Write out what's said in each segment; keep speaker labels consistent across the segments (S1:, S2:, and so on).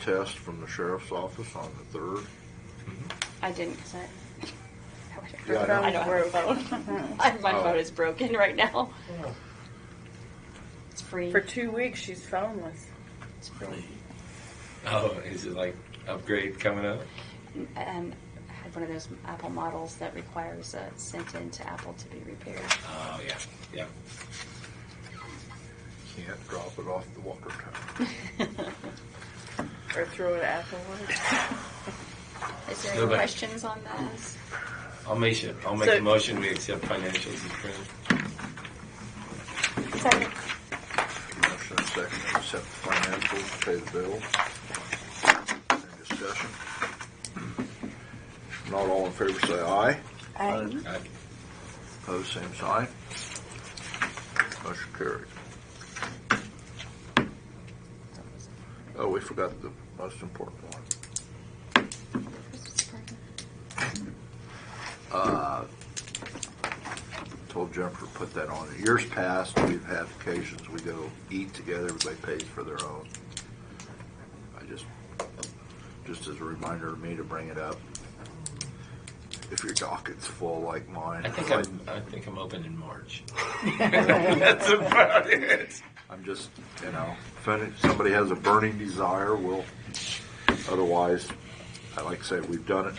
S1: test from the sheriff's office on the third?
S2: Mm-hmm.
S3: I didn't because I.
S1: Yeah, I know.
S3: I don't have a phone. I- My
S1: Oh.
S3: phone is broken right now.
S2: Oh.
S3: It's free.
S4: For two weeks, she's phoneless.
S3: It's free.
S2: Oh, is it like upgrade coming up?
S3: Um, I had one of those Apple models that requires a sent in to Apple to be repaired.
S2: Oh, yeah, yeah.
S1: Can't drop it off the water tower.
S4: Or throw it afterwards.
S3: Is there any
S2: Nobody.
S3: questions on
S1: Hmm.
S3: those?
S2: I'll make it, I'll make
S4: So-
S2: a motion, we accept financials as printed.
S3: Second.
S1: Motion and second, to accept the financials, pay the bills. Any discussion? Not all in favor, say aye.
S3: Aye.
S2: Aye.
S1: Opposed, same sign. Motion carried. Oh, we forgot the most important one. Uh, Told Jennifer to put that on. In Years past, we've had occasions, we go eat together, everybody pays for their own. I just, just as a reminder to me to bring it up. If your docket's full like mine.
S2: I think
S1: like-
S2: I'm, I think I'm open in March. That's about it.
S1: I'm just, you know, if any- somebody has a burning desire, we'll, otherwise, I like to say, we've done it.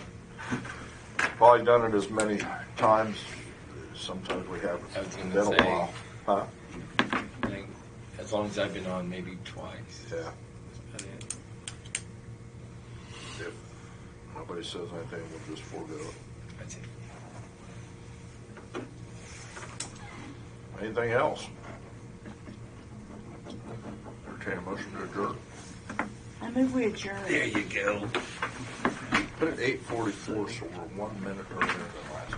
S1: Probably done it as many times, sometimes we haven't.
S2: I was gonna
S1: Been a
S2: say.
S1: while. Huh?
S2: I think As long as I've been on, maybe twice.
S1: Yeah.
S2: That's about it.
S1: If nobody says anything, we'll just forego it.
S2: That's it.
S1: Anything else? Entertain a motion to adjourn.
S4: I move we adjourn.
S2: There you go.
S1: Put it eight forty-four, so we're one minute earlier than last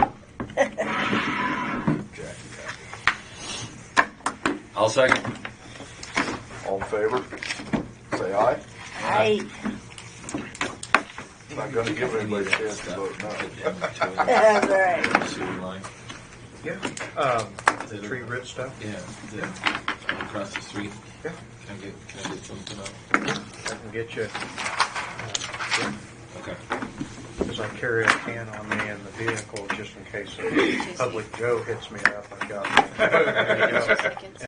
S1: time. Jackie, Jackie.
S2: I'll second.
S1: All in favor? Say aye.
S4: Aye.
S1: I'm not gonna give anybody a chance to vote no.
S2: no.
S4: That's right.
S5: Yeah, um, the
S2: Little-
S5: tree root stuff.
S2: Yeah, yeah. Across the street.
S5: Yeah.
S2: Can I get, can I get something up?
S5: I can get you,
S2: Okay.
S5: because I carry a can on me in the vehicle just in case a public Joe hits me up. I've got.
S3: Two seconds.